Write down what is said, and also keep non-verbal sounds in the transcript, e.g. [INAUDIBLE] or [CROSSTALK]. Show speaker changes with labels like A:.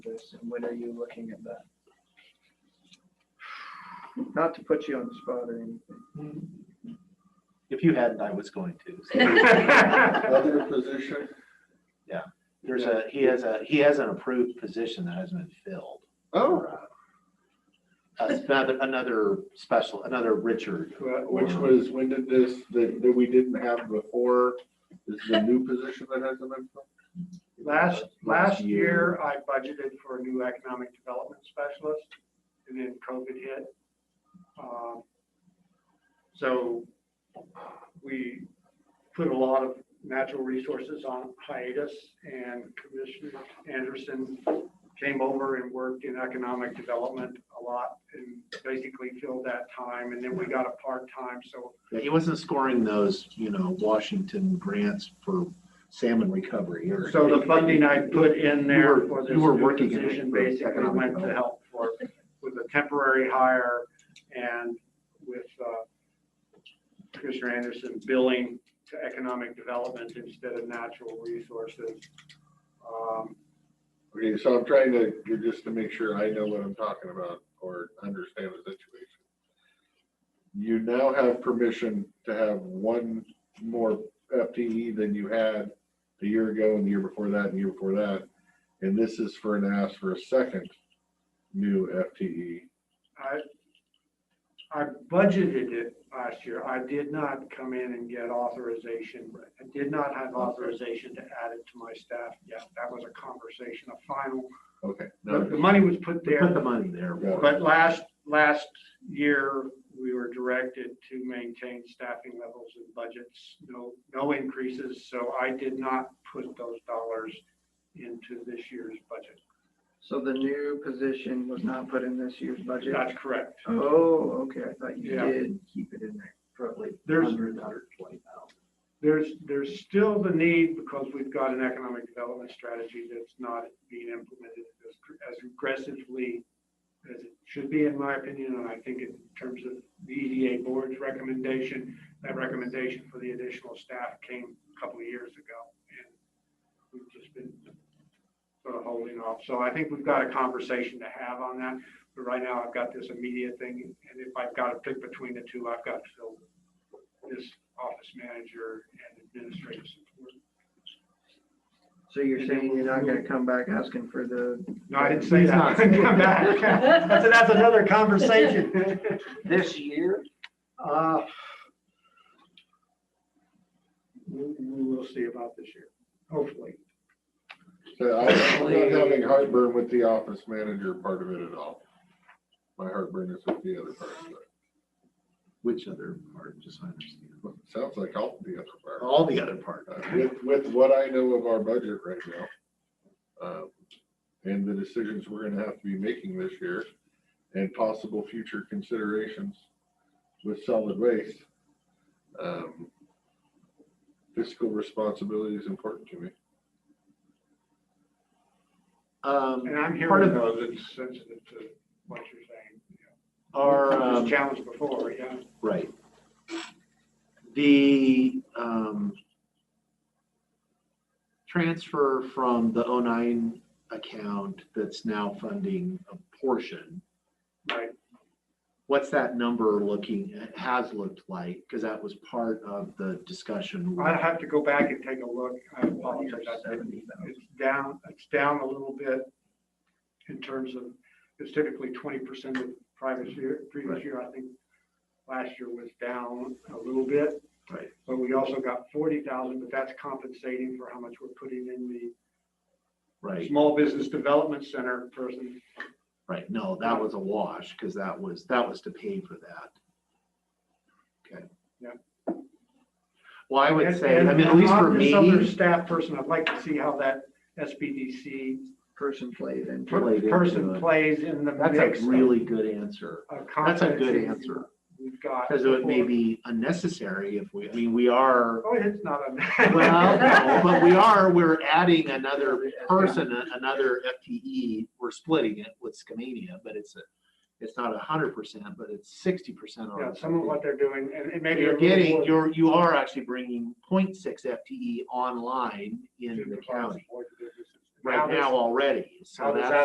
A: this, and when are you looking at that? Not to put you on the spot or
B: If you hadn't, I was going to.
C: [LAUGHS]
B: so.
D: [LAUGHS]
A: anything.
D: Other position,
B: There's a, he has a, he has an approved position that hasn't been filled.
D: oh,
B: Uh, it's Another, another special, another Richard.
D: uh, which was, when did this, that, that we didn't have before, this is a new position that hasn't been filled?
B: Uh,
A: Uh, Last, last year, I budgeted for a new economic development specialist, and then COVID hit. Um, So we put a lot of natural resources on hiatus, and Commissioner Anderson came over and worked in economic development a lot, and basically filled that time, and then we got a part-time, so
B: He wasn't scoring those, you know, Washington grants for salmon recovery or.
A: So the funding I put in
B: You
A: there
B: were-
A: for this
B: you were
A: new
B: working in
A: position
B: it for
A: basically
B: economic
A: went to
B: development.
A: help for, with a temporary hire and with uh, Commissioner Anderson billing to economic development instead of natural resources. Um,
D: Okay, so I'm trying to, just to make sure I know what I'm talking about or understand the situation. You now have permission to have one more FTE than you had a year ago and the year before that and the year before that. And this is for an ask for a second new E. FTE.
A: I, I budgeted it last year. I did not come in and get authorization. I did not have authorization to add it to my staff yet. That was a conversation, a final,
D: Okay.
A: the the
D: now-
A: money was put
B: We
A: there.
B: Put the money there.
A: But last, last year, we were directed to maintain staffing levels and budgets, no, no increases. So I did not put those dollars into this year's budget.
C: So the new position was not put in this year's budget?
A: That's correct.
C: Oh, okay, I thought you
A: Yeah.
C: did keep it in there.
B: Probably
A: There's-
B: hundred, hundred twenty thousand.
A: There's, there's still the need because we've got an economic development strategy that's not being implemented as as aggressively as it should be, in my opinion, and I think in terms of the EDA board's recommendation, that recommendation for the additional staff came a couple of years ago. And we've just been sort of holding off. So I think we've got a conversation to have on that. But right now, I've got this immediate thing, and if I've got to pick between the two, I've got to fill this office manager and administrative support.
C: So you're saying you're not gonna come back asking for the,
A: No, I didn't say
B: He's
A: that.
B: not.
A: [LAUGHS] Come back.
B: [LAUGHS]
A: That's, that's another conversation.
C: this year?
A: Uh, We, we will see about this year, hopefully.
D: So I- I'm not having heartburn with the office manager part of it at all. My heartburn is with the other part. of it.
B: Which other part, just so I understand.
D: Sounds like all the other part.
B: All the other part.
D: Uh, With, with what I know of our budget right now, uh, and the decisions we're gonna have to be making this year, and possible future considerations with solid waste, um, fiscal responsibility is important to me.
B: Um,
A: And I'm
B: part
A: hearing
B: of
A: those that's sensitive to what you're saying.
B: our,
A: This
B: um,
A: challenge before, yeah.
B: Right. The um, transfer from the 09 account that's now funding a portion,
A: Right.
B: what's that number looking, it has looked like, because that was part of the discussion.
A: I'll have to go back and take a look. I apologize.
C: Year
A: I didn't
C: 70,000.
A: It's down, it's down a little bit in terms of, it's typically twenty percent of previous year, previous
B: Right.
A: year, I think. Last year was down a little bit.
B: Right.
A: But we also got forty thousand, but that's compensating for how much we're putting in the
B: Right,
A: Small Business Development Center person.
B: right. No, that was a wash, because that was, that was to pay for that. Okay.
A: Yeah.
B: Well, I would
A: And-
B: say, I
A: and
B: mean, at least for
A: on This other
B: me,
A: staff person, I'd like to see how that SBDC
C: Person played into it.
B: Played into
A: person
B: it.
A: plays in the
B: that's
A: mix.
B: a
A: of-
B: really good answer.
A: of
B: That's a good
A: competencies
B: answer.
A: We've got.
B: Because it may
A: before.
B: be unnecessary if we, I mean, we are,
A: Oh, it's not on.
B: [LAUGHS] well, no, but we are, we're adding another person, a- another FTE. We're splitting it with Skamania, but it's a, it's not a hundred percent, but it's sixty percent
A: [LAUGHS] Yeah,
B: on.
A: some of what they're doing, and it may be. a
B: You're
A: little
B: getting,
A: more
B: you're, you are actually bringing 0.6 FTE online
A: to
B: in the
A: provide
B: county
A: support to businesses.
B: right now
A: this-
B: already. So
A: how does
B: that's.
A: that